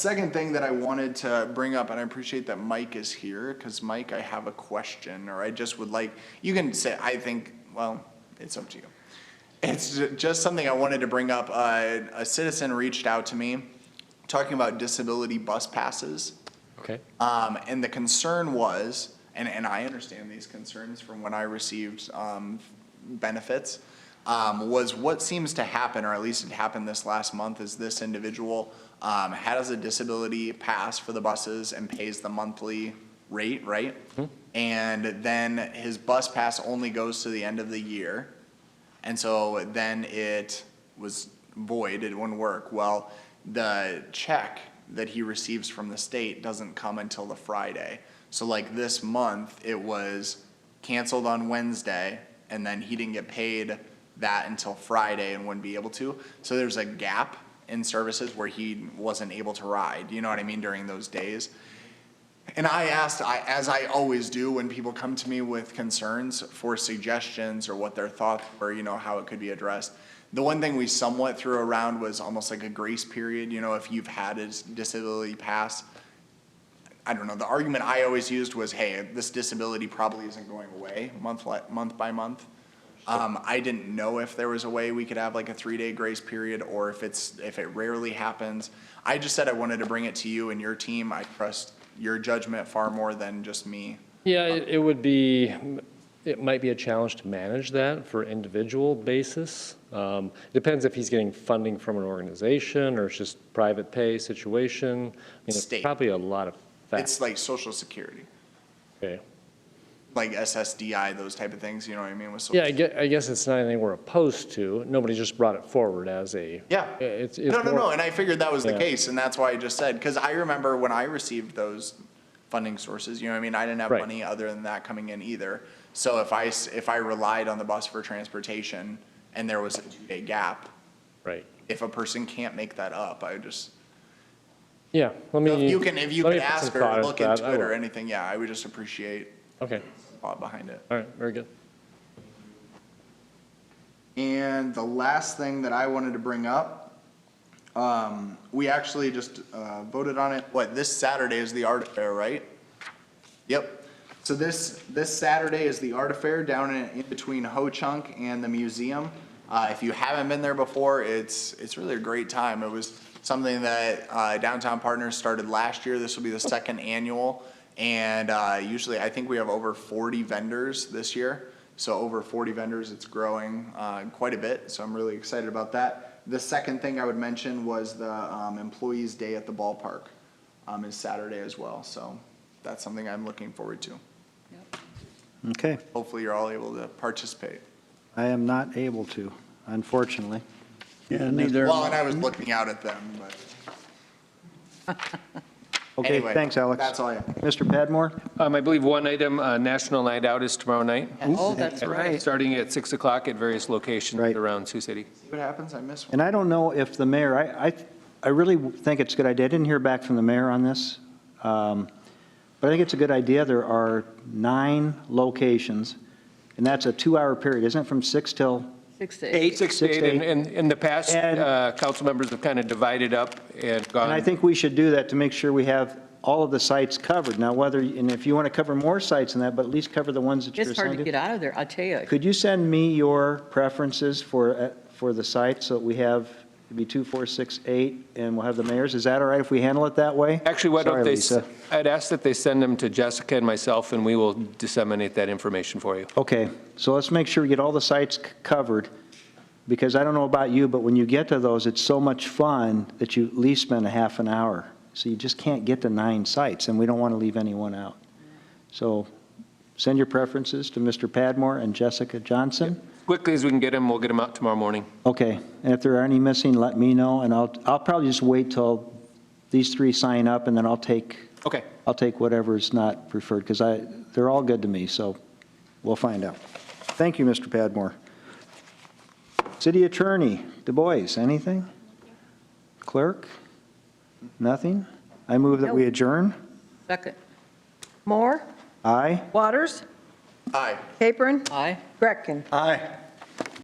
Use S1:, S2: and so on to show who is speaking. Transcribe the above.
S1: Second thing that I wanted to bring up, and I appreciate that Mike is here, because Mike, I have a question, or I just would like, you can say, I think, well, it's up to you. It's ju- just something I wanted to bring up. Uh, A citizen reached out to me, talking about disability bus passes.
S2: Okay.
S1: Um, and the concern was, and, and I understand these concerns from when I received, um, benefits, um, was what seems to happen, or at least it happened this last month, is this individual, um, has a disability pass for the buses and pays the monthly rate, right? And then his bus pass only goes to the end of the year. And so then it was void, it wouldn't work. Well, the check that he receives from the state doesn't come until the Friday. So like this month, it was canceled on Wednesday, and then he didn't get paid that until Friday and wouldn't be able to. So there's a gap in services where he wasn't able to ride, you know what I mean, during those days. And I asked, I, as I always do when people come to me with concerns for suggestions or what their thoughts were, you know, how it could be addressed. The one thing we somewhat threw around was almost like a grace period, you know, if you've had a disability pass. I don't know, the argument I always used was, hey, this disability probably isn't going away month, li- month by month. Um, I didn't know if there was a way we could have like a three-day grace period or if it's, if it rarely happens. I just said I wanted to bring it to you and your team. I trust your judgment far more than just me.
S2: Yeah, it it would be, it might be a challenge to manage that for individual basis. Um, Depends if he's getting funding from an organization or it's just private pay situation. I mean, there's
S1: State.
S2: Probably a lot of
S1: It's
S2: facts.
S1: like social security,
S2: Okay.
S1: like SSDI, those type of things, you know what I mean? With social-
S2: Yeah, I guess, I guess it's not anything we're opposed to. Nobody just brought it forward as a.
S1: Yeah.
S2: It's, it's
S1: No, no,
S2: more-
S1: no, and I figured that was the
S2: Yeah.
S1: case, and that's why I just said, because I remember when I received those funding sources, you know what I mean? I didn't have
S2: Right.
S1: money other than that coming in either. So if I, s- if I relied on the bus for transportation and there was a two-day gap,
S2: Right.
S1: if a person can't make that up, I just,
S2: Yeah, let me.
S1: if you can, if you
S2: let
S1: could
S2: me put some
S1: ask
S2: thought
S1: or
S2: into
S1: look
S2: that.
S1: into
S2: I
S1: it or
S2: will.
S1: anything, yeah, I would just appreciate
S2: Okay,
S1: thought behind it.
S2: all right, very good.
S1: And the last thing that I wanted to bring up, um, we actually just, uh, voted on it, what, this Saturday is the art fair, right? Yep. So this, this Saturday is the art fair down in, in between Ho-Chunk and the museum. Uh, if you haven't been there before, it's, it's really a great time. It was something that, uh, Downtown Partners started last year. This will be the second annual. And, uh, usually I think we have over forty vendors this year. So over forty vendors, it's growing, uh, quite a bit. So I'm really excited about that. The second thing I would mention was the, um, Employees Day at the ballpark, um, is Saturday as well. So that's something I'm looking forward to.
S3: Okay,
S1: Hopefully, you're all able to participate.
S3: I am not able to, unfortunately.
S4: Yeah, neither.
S1: Well, and I was looking out at them, but
S3: Okay,
S1: anyway.
S3: thanks, Alex.
S1: That's all I have.
S3: Mr. Padmore?
S5: Um, I believe one item, uh, National Night Out is tomorrow night.
S6: Oh, that's right.
S5: Starting at 6 o'clock at various locations
S3: Right.
S5: around Sioux City.
S1: See what happens? I miss one.
S3: And I don't know if the mayor, I, I, I really think it's a good idea. I didn't hear back from the mayor on this. um, But I think it's a good idea. There are nine locations, and that's a two-hour period, isn't it, from six till?
S6: Six to eight.
S5: 8, 6 to
S3: Six to
S5: 8. And and in the past,
S3: And-
S5: uh, council members have kind of divided up and gone.
S1: Um,
S3: And I think we should do that to make sure we have all of the sites covered. Now, whether, and if you want to cover more sites than that, but at least cover the ones that you're
S6: It's hard
S3: assigned
S6: to
S3: to.
S6: get out of there, I'll tell you.
S3: Could you send me your preferences for, uh, for the site, so that we have, it'd be two, four, six, eight, and we'll have the mayors? Is that all right if we handle it that way?
S5: Actually, why
S3: Sorry,
S5: don't they, s-
S3: Lisa.
S5: I'd ask that they send them to Jessica and myself, and we will disseminate that information for you.
S3: Okay, so let's make sure we get all the sites c- covered, because I don't know about you, but when you get to those, it's so much fun that you at least spend a half an hour. So you just can't get to nine sites, and we don't want to leave anyone out. So send your preferences to Mr. Padmore and Jessica Johnson.
S5: Quickly as we can get them, we'll get them out tomorrow morning.
S3: Okay, and if there are any missing, let me know, and I'll, I'll probably just wait till these three sign up, and then I'll take,
S5: Okay.
S3: I'll take whatever's not preferred, because I, they're all good to me, so we'll find out. Thank you, Mr. Padmore. City Attorney, Du Bois, anything? Clerk? Nothing? I move that we
S6: Nope.
S3: adjourn.
S6: Second. Moore,
S3: Aye?
S7: Waters,
S1: Aye.
S7: Capron,
S6: aye.
S7: Gretkin.
S3: Aye.